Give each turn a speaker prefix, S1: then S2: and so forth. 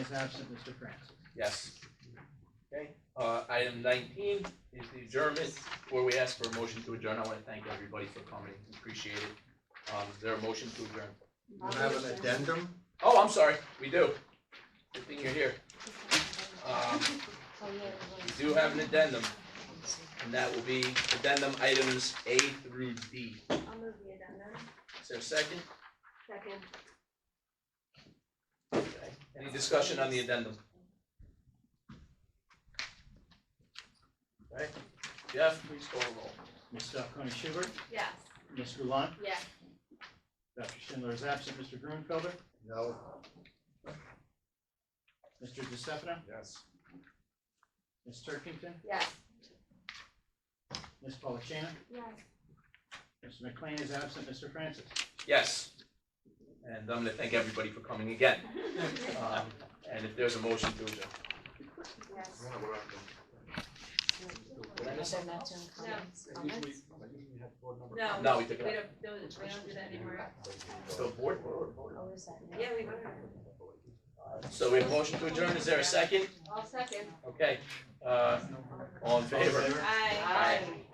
S1: is absent, Mr. Francis.
S2: Yes. Okay, uh, item nineteen is the adjournment, where we ask for a motion to adjourn. I wanna thank everybody for coming, appreciate it. Um, is there a motion to adjourn?
S3: You have an addendum?
S2: Oh, I'm sorry, we do. Good thing you're here. Um, we do have an addendum, and that will be addendum items A through D.
S4: I'll move the addendum.
S2: Is there a second?
S4: Second.
S2: Okay. Any discussion on the addendum? Okay, Jeff, please call the roll.
S1: Ms. Falcone Schubert,
S4: Yes.
S1: Ms. Gulon,
S4: Yes.
S1: Dr. Schindler is absent, Mr. Grunfelder,
S3: No.
S1: Mr. De Stefano,
S3: Yes.
S1: Ms. Turkington,
S4: Yes.
S1: Ms. Polachina,
S4: Yes.
S1: Mr. McLean is absent, Mr. Francis.
S2: Yes. And I'm gonna thank everybody for coming again. Um, and if there's a motion to adjourn.
S4: Yes.
S2: Did I miss something?
S4: No.
S2: No, we took
S4: We
S2: it
S4: don't, no, we don't do that anymore.
S2: So board,
S4: Yeah, we would.
S2: so we have a motion to adjourn. Is there a second?
S4: I'll second.
S2: Okay, uh, all in favor?
S4: Aye.
S2: Aye.